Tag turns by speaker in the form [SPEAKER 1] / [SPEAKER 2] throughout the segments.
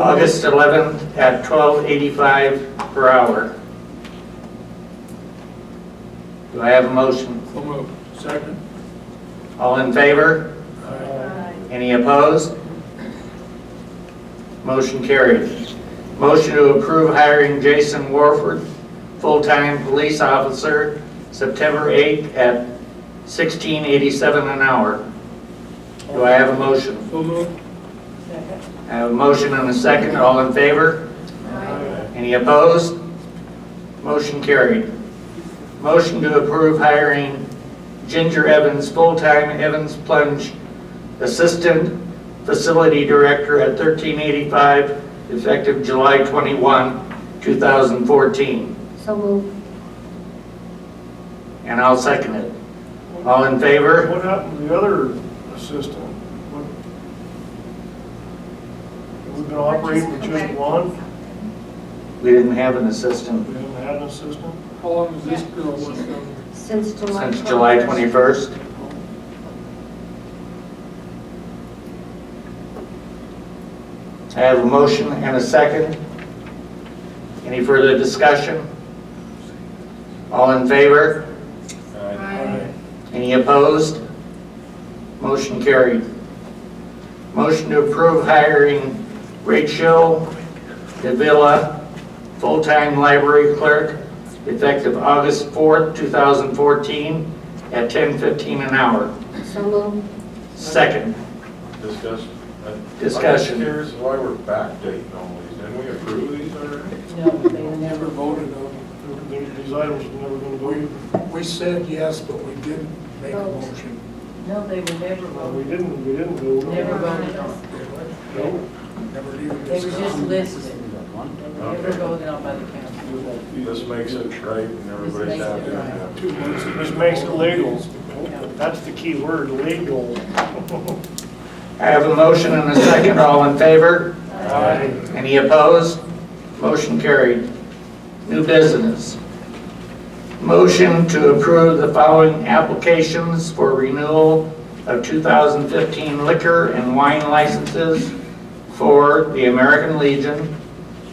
[SPEAKER 1] August 11th at 12.85 per hour. Do I have a motion?
[SPEAKER 2] So moved. Second.
[SPEAKER 1] All in favor? Any opposed? Motion carried. Motion to approve hiring Jason Warford, full-time police officer, September 8th at 16.87 an hour. Do I have a motion?
[SPEAKER 2] So moved.
[SPEAKER 1] I have a motion and a second. All in favor?
[SPEAKER 2] Aye.
[SPEAKER 1] Any opposed? Motion carried. Motion to approve hiring Ginger Evans, full-time Evans Plunge Assistant Facility Director at 1385, effective July 21, 2014.
[SPEAKER 3] So moved.
[SPEAKER 1] And I'll second it. All in favor?
[SPEAKER 4] What happened to the other assistant? What- Have we been operating with just one?
[SPEAKER 1] We didn't have an
[SPEAKER 4] We
[SPEAKER 1] assistant
[SPEAKER 4] haven't had an assistant?
[SPEAKER 2] How long has this girl lived down there?
[SPEAKER 3] Since July.
[SPEAKER 1] since July
[SPEAKER 3] 21st.
[SPEAKER 1] 21st. I have a motion and a second. Any further discussion? All in favor?
[SPEAKER 3] Aye.
[SPEAKER 1] Any opposed? Motion carried. Motion to approve hiring Rachel Davila, full-time library clerk, effective August 4th, 2014, at 10:15 an hour.
[SPEAKER 3] So moved.
[SPEAKER 1] Second.
[SPEAKER 5] Discussion. I'm
[SPEAKER 1] Discussion.
[SPEAKER 5] uh, curious why we're backdating all these. Didn't we approve these already?
[SPEAKER 6] No, they never.
[SPEAKER 2] Never voted on
[SPEAKER 4] There- there- These items have never been voted.
[SPEAKER 2] it. We said yes, but we didn't make a motion.
[SPEAKER 6] No, they were never
[SPEAKER 4] No,
[SPEAKER 6] voted,
[SPEAKER 4] we didn't, we didn't vote. on it.
[SPEAKER 6] never voted on.
[SPEAKER 4] No.
[SPEAKER 2] Never even
[SPEAKER 6] They were just
[SPEAKER 2] discussed.
[SPEAKER 6] listed, never voted on by the council.
[SPEAKER 5] This makes it right and everybody's
[SPEAKER 6] makes it
[SPEAKER 5] happy.
[SPEAKER 6] right.
[SPEAKER 5] Yeah.
[SPEAKER 2] Two months ago.
[SPEAKER 4] This makes it legal. That's the key word, legal.
[SPEAKER 1] I have a motion and a second. All in favor?
[SPEAKER 4] Aye.
[SPEAKER 1] Any opposed? Motion carried. New business. Motion to approve the following applications for renewal of 2015 liquor and wine licenses for the American Legion,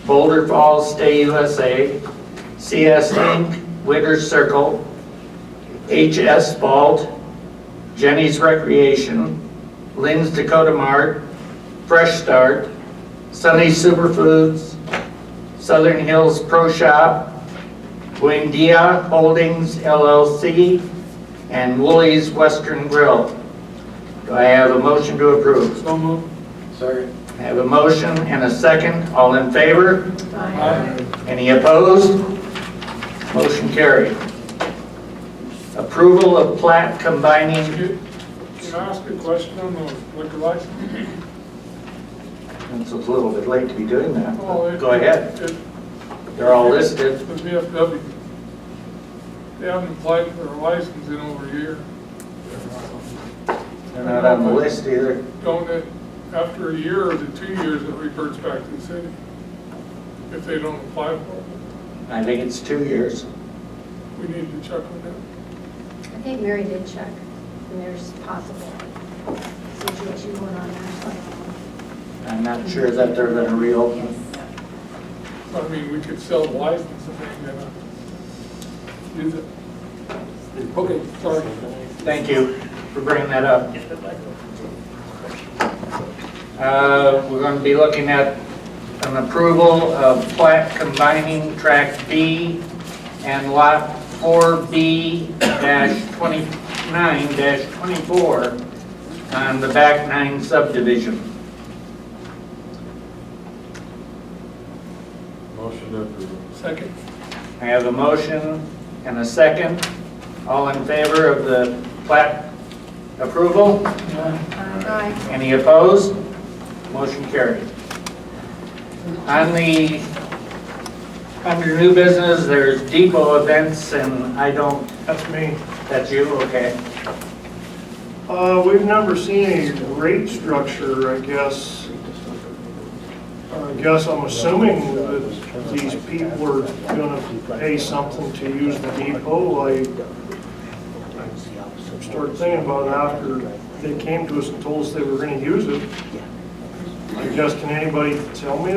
[SPEAKER 1] Boulder Falls Stay USA, CS Inc., Wiggers Circle, HS Vault, Jenny's Recreation, Lynn's Dakota Mart, Fresh Start, Sunny Superfoods, Southern Hills Pro Shop, Buendia Holdings LLC, and Woolies Western Grill. Do I have a motion to approve?
[SPEAKER 2] So moved.
[SPEAKER 5] Second.
[SPEAKER 1] I have a motion and a second. All in favor?
[SPEAKER 2] Aye.
[SPEAKER 1] Any opposed? Motion carried. Approval of plat combining,
[SPEAKER 2] Can can I ask a question on the liquor license?
[SPEAKER 1] it's a little bit late to be doing that.
[SPEAKER 2] Oh,
[SPEAKER 1] but
[SPEAKER 2] it-
[SPEAKER 1] Go ahead.
[SPEAKER 2] it-
[SPEAKER 1] They're all listed.
[SPEAKER 2] The VFW. They haven't applied for a license in over a year.
[SPEAKER 1] They're not on the list either.
[SPEAKER 2] Don't it, after a year or the two years, it reverts back to the city if they don't apply for it.
[SPEAKER 1] I think it's two years.
[SPEAKER 2] We need to check on that.
[SPEAKER 3] I think Mary did check, and there's possible situation going on there. so I don't
[SPEAKER 1] I'm not sure that they're gonna
[SPEAKER 3] know.
[SPEAKER 1] reopen.
[SPEAKER 3] Yes.
[SPEAKER 2] I mean, we could sell the license if they never use it. Okay, sorry.
[SPEAKER 1] Thank you for bringing that up. Uh, We're gonna be looking at an approval of plat combining tract B and lot 4B-29-24 on the back nine subdivision.
[SPEAKER 5] Motion to approve.
[SPEAKER 2] Second.
[SPEAKER 1] I have a motion and a second. All in favor of the plat approval?
[SPEAKER 3] Aye.
[SPEAKER 1] Any opposed? Motion carried. On the, under new business, there's depot events, and I don't,
[SPEAKER 4] That's me.
[SPEAKER 1] that's you, okay?
[SPEAKER 4] Uh, we've never seen a rate structure, I guess. I guess I'm assuming that these people are gonna pay something to use the depot. I started thinking about it after they came to us and told us they were gonna use it. I guess, can anybody tell me